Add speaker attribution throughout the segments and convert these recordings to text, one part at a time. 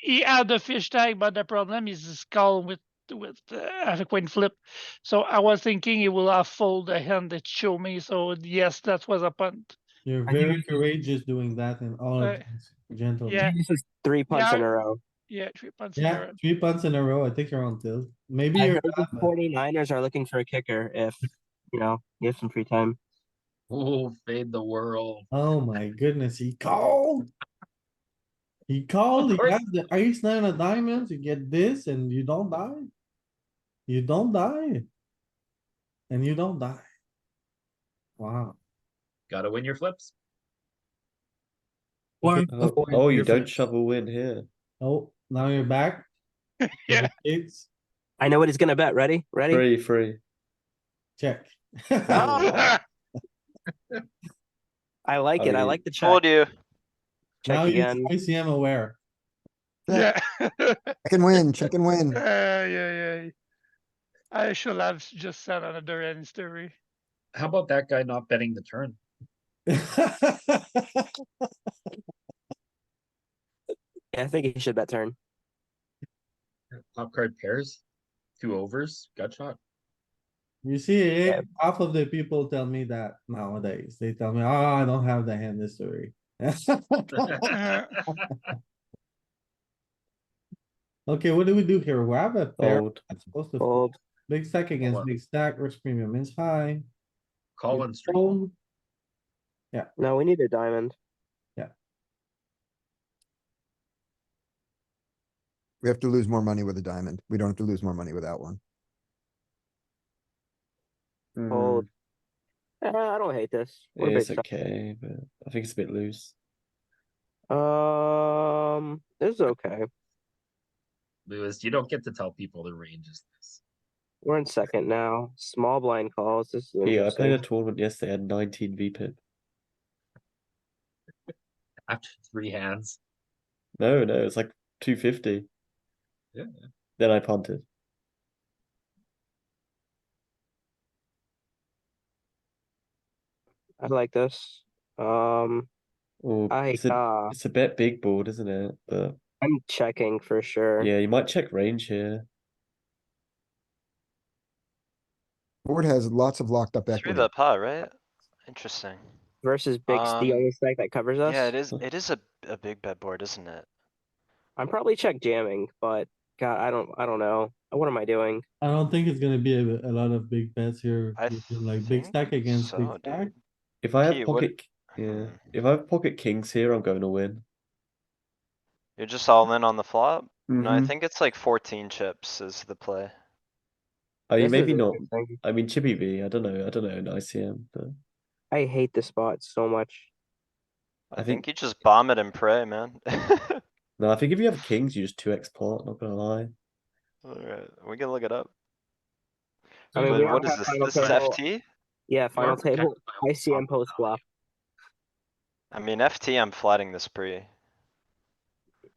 Speaker 1: he had the fish tag, but the problem is his skull with with uh, have a queen flip. So I was thinking he will have fold the hand that show me. So yes, that was a punt.
Speaker 2: You're
Speaker 3: I think
Speaker 2: very
Speaker 3: it-
Speaker 2: courageous doing that and all
Speaker 1: Uh,
Speaker 2: of this, gentle.
Speaker 1: yeah.
Speaker 3: This is three punts
Speaker 1: Yeah.
Speaker 3: in a row.
Speaker 1: Yeah, three punts. in a
Speaker 2: Yeah,
Speaker 1: row.
Speaker 2: three punts in a row. I think you're on tilt. Maybe
Speaker 3: I
Speaker 2: you're.
Speaker 3: heard the 49ers are looking for a kicker if, you know, you have some free time.
Speaker 4: Oh, fade the world.
Speaker 2: Oh my goodness, he called. He called, he
Speaker 4: course.
Speaker 2: got the ace nine of diamonds, you get this and you don't die. You don't die. And you don't die. Wow.
Speaker 4: Gotta win your flips.
Speaker 2: One.
Speaker 5: Oh, oh, you don't shovel win here.
Speaker 2: Oh, now you're back.
Speaker 1: Yeah.
Speaker 2: It's
Speaker 3: I know what he's gonna bet. Ready? Ready?
Speaker 5: Three, three.
Speaker 2: check.
Speaker 1: Ah,
Speaker 3: Oh. I like it. I
Speaker 5: Oh,
Speaker 3: like the check.
Speaker 6: Told you.
Speaker 2: Now
Speaker 3: Check
Speaker 2: he's
Speaker 3: again.
Speaker 2: ICM aware.
Speaker 1: yeah. yeah,
Speaker 7: Check and win, check and win.
Speaker 1: yeah, yeah. I should have just said another answer.
Speaker 4: How about that guy not betting the turn?
Speaker 3: Yeah, I think he should bet turn.
Speaker 4: Top card pairs, two overs, gut shot.
Speaker 2: You see, eh,
Speaker 3: Yeah.
Speaker 2: half of the people tell me that nowadays. They tell me, oh, I don't have the hand history. Okay, what do we do here? We have a
Speaker 6: Oh.
Speaker 2: pair.
Speaker 5: Old.
Speaker 2: that's supposed to fold.
Speaker 3: Fold.
Speaker 2: Big stack against
Speaker 4: on.
Speaker 2: big stack, risk premium is high.
Speaker 4: Call
Speaker 2: You
Speaker 4: and straight.
Speaker 2: fold.
Speaker 3: No, we need a diamond.
Speaker 7: We have to lose more money with a diamond. We don't have to lose more money without one. Hmm.
Speaker 3: Fold. Eh, I don't hate this. What a
Speaker 5: It's
Speaker 3: big
Speaker 5: okay, but I think it's a bit loose.
Speaker 3: shot. Um, this is okay.
Speaker 4: Lewis, you don't get to tell people the range is this.
Speaker 3: We're in second now. Small blind calls. This is
Speaker 5: Yeah, I
Speaker 3: interesting.
Speaker 5: played a tournament yesterday. I had 19 VPIP.
Speaker 4: After three hands,
Speaker 5: No, no, it's like 250.
Speaker 4: Yeah.
Speaker 5: Then I punted.
Speaker 3: I like this. Um,
Speaker 5: Or
Speaker 3: I
Speaker 5: it's, a,
Speaker 3: uh,
Speaker 5: it's a bit big board, isn't it? But
Speaker 3: I'm checking for sure.
Speaker 5: yeah, you might check range here.
Speaker 7: Board has lots of locked up
Speaker 6: Through
Speaker 7: equity.
Speaker 6: the pot, right? Interesting.
Speaker 3: Versus big, s- the
Speaker 6: Um,
Speaker 3: only stack that covers us.
Speaker 6: Yeah, it is, it is a, a big bet board, isn't it?
Speaker 3: I'm probably check jamming, but God, I don't, I don't know. What am I doing?
Speaker 2: I don't think it's gonna be a, a lot of big bets here.
Speaker 6: I
Speaker 2: This is Like big
Speaker 6: think
Speaker 2: stack against big
Speaker 6: so,
Speaker 2: stack.
Speaker 6: dude. Mm-hmm.
Speaker 5: If I have
Speaker 6: Gee, what-
Speaker 5: pocket, yeah, if I have pocket kings here, I'm going to win.
Speaker 6: You're just all in on the flop? No, I
Speaker 2: Mm-hmm.
Speaker 5: Mhm.
Speaker 6: think it's like fourteen chips is the play.
Speaker 5: I mean,
Speaker 3: This
Speaker 5: maybe
Speaker 3: is
Speaker 5: not.
Speaker 3: interesting.
Speaker 5: I mean, Chippy V. I don't know. I don't know in ICM, but
Speaker 3: I hate this spot so much.
Speaker 6: I think you just bomb it and pray, man.
Speaker 5: no. I think if you have kings, you just two X pot. Not gonna lie.
Speaker 6: Alright, we can look it up.
Speaker 3: I mean,
Speaker 6: But
Speaker 3: we all
Speaker 6: what is
Speaker 3: have
Speaker 6: this?
Speaker 3: final
Speaker 6: This is
Speaker 3: table.
Speaker 6: FT?
Speaker 3: Yeah,
Speaker 4: You are
Speaker 3: final table.
Speaker 4: protected by
Speaker 3: ICM post flop.
Speaker 6: I mean, FT, I'm flatting this pre.
Speaker 3: Uh,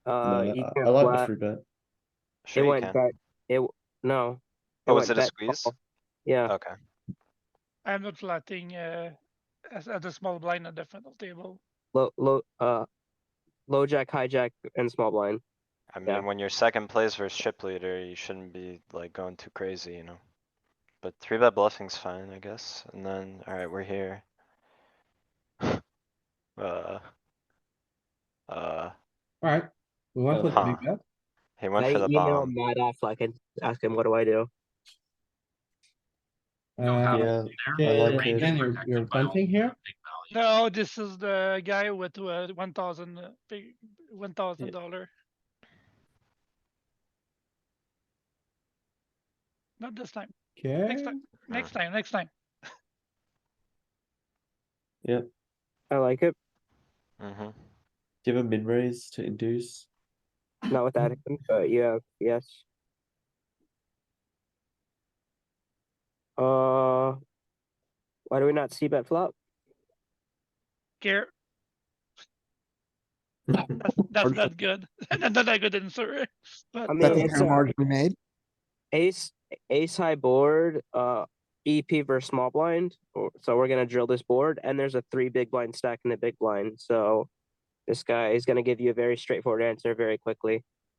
Speaker 5: No,
Speaker 3: you
Speaker 5: I-
Speaker 3: can't
Speaker 5: I, like the
Speaker 3: flat.
Speaker 5: free bet.
Speaker 6: Sure
Speaker 3: it
Speaker 6: you
Speaker 3: went
Speaker 6: can.
Speaker 3: bet. It w- no.
Speaker 6: Oh, was
Speaker 3: went
Speaker 6: it a
Speaker 3: bet
Speaker 6: squeeze? Oh.
Speaker 3: call. Yeah.
Speaker 6: Okay.
Speaker 1: I'm not flatting uh, as- at the small blind at the final table.
Speaker 3: Low, low, uh, low jack, hijack, and small blind.
Speaker 6: I
Speaker 3: Yeah.
Speaker 6: mean, when your second plays versus chip leader, you shouldn't be like going too crazy, you know? But three bet bluffing's fine, I guess, and then, alright, we're here. Uh. Uh,
Speaker 2: Alright, we went with
Speaker 6: Huh.
Speaker 2: big bet.
Speaker 6: he
Speaker 3: I
Speaker 6: went for the
Speaker 3: email
Speaker 6: bomb.
Speaker 3: Matt Affleck and ask him, what do I do?
Speaker 2: Uh,
Speaker 5: Yeah,
Speaker 2: yeah,
Speaker 5: I
Speaker 2: yeah,
Speaker 5: like
Speaker 2: yeah.
Speaker 5: it.
Speaker 2: Again, you're, you're punting here?
Speaker 1: No, this is the guy with uh, one thousand big one thousand dollar. Not this time.
Speaker 2: Okay,
Speaker 1: Next time. Next time. Next time.
Speaker 3: I like it.
Speaker 6: Mm-hmm.
Speaker 5: Do you have a min raise to induce?
Speaker 3: Not with that, but yeah, yes. Uh, why do we not see bet flop?
Speaker 1: Care. That's, that's not good. That's not a good answer. But
Speaker 3: I mean,
Speaker 7: That the
Speaker 3: it's
Speaker 7: error
Speaker 3: a-
Speaker 7: margin we made.
Speaker 3: ace, ace high board, uh, EP versus small blind. or- So we're gonna drill this board, and there's a three big blind stack in the big blind. So this guy is gonna give you a very straightforward answer very quickly.